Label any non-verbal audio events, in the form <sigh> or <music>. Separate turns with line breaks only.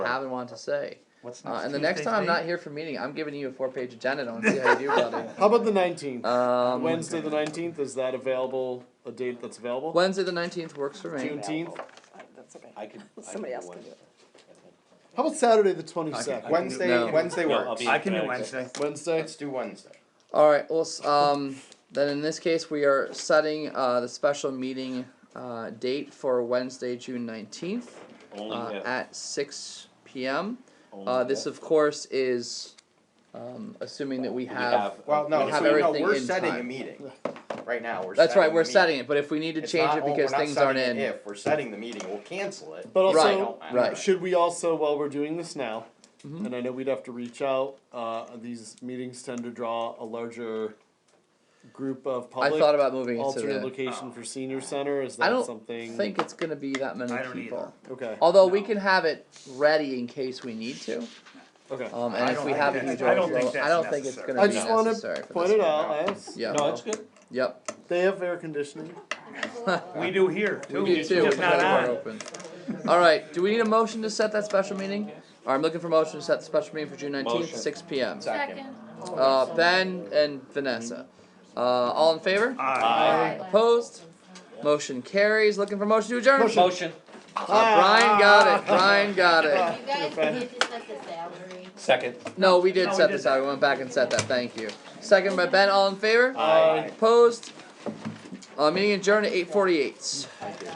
haven't wanted to say.
What's
Uh, and the next time I'm not here for meeting, I'm giving you a four page agenda and see how you do, brother.
How about the nineteenth?
<laughs>
Um,
Wednesday the nineteenth is that available? A date that's available?
Wednesday the 19th works for me.
Juneteenth.
That's okay.
I could. I
Somebody
could
else can
Wednesday.
How about Saturday the twenty
I can-
second?
I can-
Wednesday,
No.
Wednesday
No, I'll
works.
be-
I can do
Yeah,
Wednesday.
Wednesday.
Let's do Wednesday.
All right. Well, s- um, then in this case, we are setting uh, the special meeting uh, date for Wednesday, June 19th
Only
uh,
if.
at 6 p.m. Uh,
only
this,
if
of course, is um, assuming that we have.
Well, no,
We have
so, no,
everything
we're
in
setting a
time.
meeting. Right now, we're.
That's right.
setting
We're
the meeting.
setting it, but if we need to
It's
change
not-
it
oh, we're
because
not
things aren't
setting
in,
it If we're setting the meeting, we'll cancel it.
But also,
Right,
I-
right. Mm-hmm.
should we also while we're doing this now, and I know we'd have to reach out. Uh, these meetings tend to draw a larger group of
I
public.
thought about moving it to
alternate
the.
location for senior center. Is
I
that
don't
something?
think it's going to be that many
I don't
people.
either.
Okay.
Although we can have it ready in case we need to.
Okay.
Um,
I
and if
don't
we
think
have a
that's-
huge
I don't think
overflow, I
that's
don't think it's
necessary.
gonna
I
be
just want
necessary
to
for
point
this
it
one.
out. I was-
Yeah.
No, it's good.
Yep,
They have air conditioning.
We do here too.
we do too, with
Just
the
not
door
on.
open. Alright, do we need a motion to set that special meeting? Alright, I'm looking for motion to set the special meeting for June nineteenth,
Motion.
six P M.
Second.
Uh, Ben and Vanessa, uh, all in favor?
Aye.
Opposed? Motion carries, looking for motion to adjourn? Uh,
Motion.
Brian got it, Brian got it.
You guys did just set the salary.
Second.
No, we
No,
did
we
set
did
this out, we went back and set that, thank you. Second by Ben, all in favor?
Aye.
Opposed? Uh, meeting adjourned at eight forty-eight.